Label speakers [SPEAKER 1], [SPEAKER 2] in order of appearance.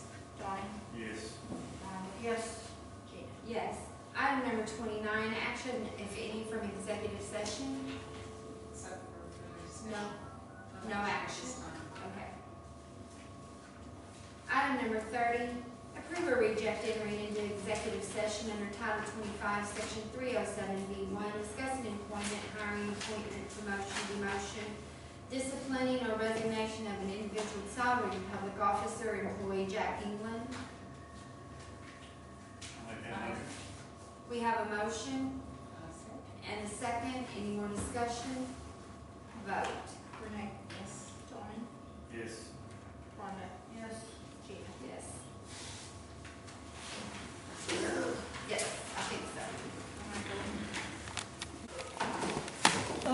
[SPEAKER 1] action, if any, from executive session?
[SPEAKER 2] Except for the discussion.
[SPEAKER 1] No. No action. Okay. Item number thirty, approve or reject entering into executive session under Title twenty-five, Section three oh seven B one, discussing employment, hiring, appointment, promotion, demotion, disciplining or resignation of an individual salary public officer or employee, Jack England.
[SPEAKER 3] Make that motion.
[SPEAKER 1] We have a motion
[SPEAKER 2] Uh, so-
[SPEAKER 1] and a second, any more discussion? Vote.